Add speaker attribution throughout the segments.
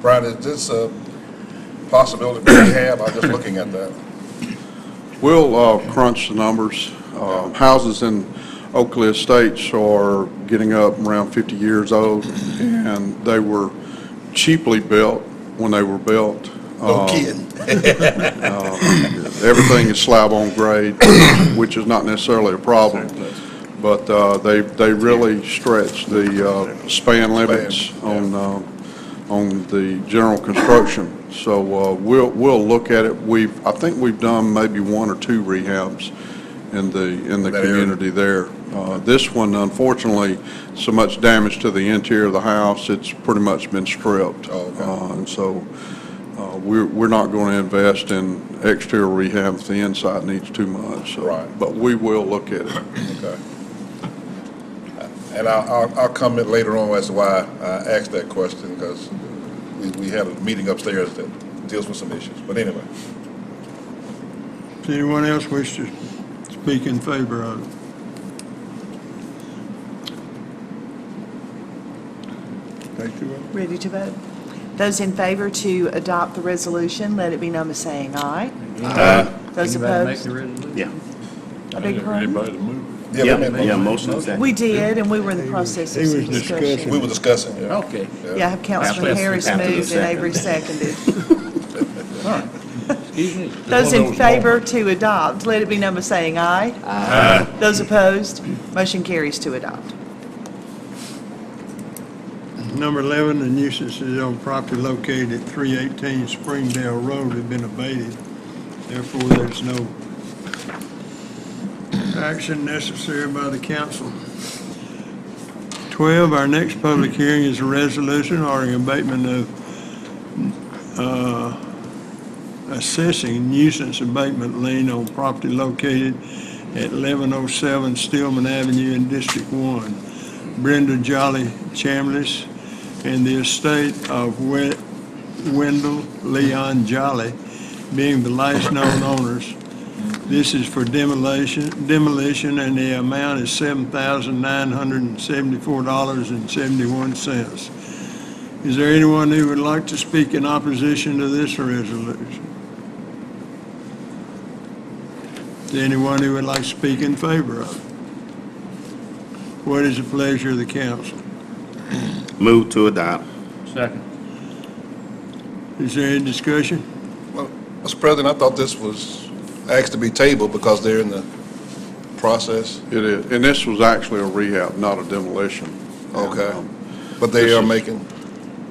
Speaker 1: Brian, is this a possibility we have? I'm just looking at that.
Speaker 2: We'll uh, crunch the numbers. Uh, Houses in Oakley Estates are getting up around 50 years old, and they were cheaply built when they were built.
Speaker 1: No
Speaker 2: Uh,
Speaker 1: kidding.
Speaker 2: Everything is slab on grade, which is not necessarily a problem, but uh, they, they really stretch the uh, span limits on, uh, on the general construction. So uh, we'll, we'll look at it. We've, I think we've done maybe one or two rehabs in the, in the
Speaker 1: That area.
Speaker 2: community there. Uh, This one, unfortunately, so much damage to the interior of the house, it's pretty much been stripped.
Speaker 1: Oh, okay.
Speaker 2: Uh, And so uh, We're, we're not going to invest in exterior rehab if the inside needs too much, so.
Speaker 1: Right.
Speaker 2: But we will look at it.
Speaker 1: Okay. And I'll, I'll- I'll comment later on as to why I asked that question, because we, we had a meeting upstairs that deals with some issues. But anyway,
Speaker 3: If anyone else wish to speak in favor of it? Take the vote.
Speaker 4: Ready to vote? Those in favor to adopt the resolution, let it be known by saying aye. Aye. Those opposed?
Speaker 5: Yeah,
Speaker 4: I beg your pardon?
Speaker 1: yeah,
Speaker 5: yeah,
Speaker 1: we made a
Speaker 5: yeah,
Speaker 1: motion.
Speaker 5: motion is second.
Speaker 4: We did, and we were in the process
Speaker 3: He
Speaker 4: of
Speaker 3: was
Speaker 4: some discussion.
Speaker 3: discussing.
Speaker 1: we were discussing, yeah.
Speaker 6: Okay.
Speaker 4: Yeah, I have Councilman
Speaker 5: After-
Speaker 4: Harris
Speaker 5: after the
Speaker 4: moved and
Speaker 5: second.
Speaker 4: Avery seconded.
Speaker 6: Excuse me.
Speaker 4: Those in favor to adopt, let it be known by saying aye. Aye. Those opposed? Motion carries to adopt.
Speaker 3: Number 11, the nuisances on property located at 318 Springdale Road have been abated. Therefore, there's no action necessary by the council. 12, our next public hearing is a resolution ordering abatement of uh, assessing nuisance abatement lien on property located at 1107 Stillman Avenue in District 1. Brenda Jolly Chambliss and the estate of We- Wendell Leon Jolly being the last known owners. This is for demolition, demolition, and the amount is $7,974.71. Is there anyone who would like to speak in opposition to this resolution? Is there anyone who would like to speak in favor of it? What is the pleasure of the council?
Speaker 5: Move to adopt.
Speaker 6: Second.
Speaker 3: Is there any discussion?
Speaker 1: Mr. President, I thought this was asked to be tabled because they're in the process,
Speaker 2: It is, and this was actually a rehab, not a demolition.
Speaker 1: Okay.
Speaker 2: Um,
Speaker 1: but they
Speaker 2: This
Speaker 1: are
Speaker 2: is-
Speaker 1: making,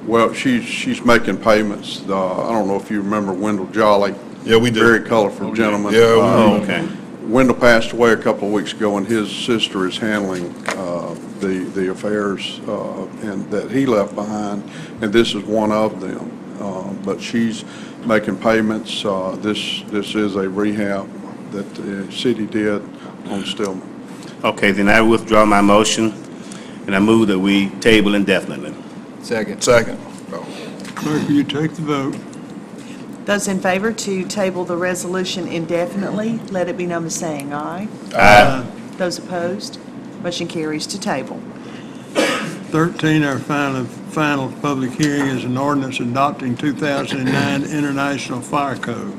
Speaker 2: Well, she's, she's making payments. Uh, I don't know if you remember Wendell Jolly.
Speaker 1: Yeah, we do.
Speaker 2: Very colorful gentleman.
Speaker 1: Yeah, we
Speaker 2: Uh,
Speaker 1: do.
Speaker 5: Oh, okay.
Speaker 2: Wendell passed away a couple of weeks ago, and his sister is handling uh, the the affairs uh, and that he left behind, and this is one of them. Uh, But she's making payments. Uh, This this is a rehab that the city did on Stillman.
Speaker 5: Okay, then I withdraw my motion, and I move that we table indefinitely.
Speaker 6: Second.
Speaker 1: second. Oh,
Speaker 3: Clerk, will you take the vote?
Speaker 4: Those in favor to table the resolution indefinitely, let it be known by saying aye. Those opposed? Motion carries to table.
Speaker 3: 13, our final, final public hearing is an ordinance adopting 2009 International Fire Code.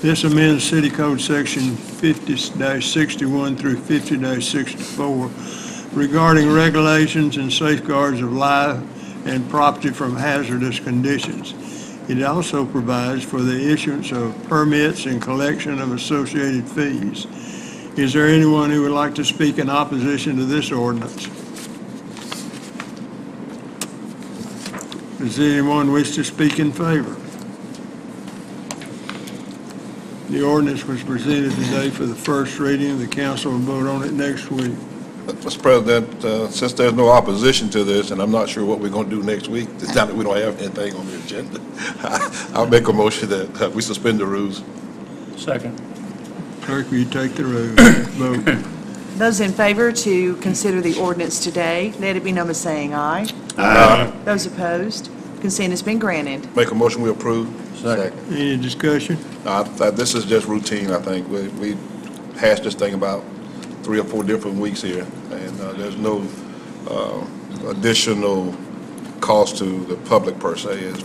Speaker 3: This amends City Code Section 50-61 through 50-64 regarding regulations and safeguards of life and property from hazardous conditions. It also provides for the issuance of permits and collection of associated fees. Is there anyone who would like to speak in opposition to this ordinance? Does anyone wish to speak in favor? The ordinance was presented today for the first reading. The council will vote on it next week.
Speaker 1: Mr. President, uh, since there's no opposition to this, and I'm not sure what we're going to do next week, it's not that we don't have anything on the agenda, I'll make a motion that uh, we suspend the rules.
Speaker 6: Second.
Speaker 3: Clerk, will you take the roll? Vote.
Speaker 4: Those in favor to consider the ordinance today, let it be known by saying aye. Those opposed, consent has been granted.
Speaker 1: Make a motion, we approve.
Speaker 6: Second.
Speaker 3: Any discussion?
Speaker 1: Uh, I- This is just routine, I think. We we hashed this thing about three or four different weeks here, and uh, there's no uh, additional cost to the public per se. It's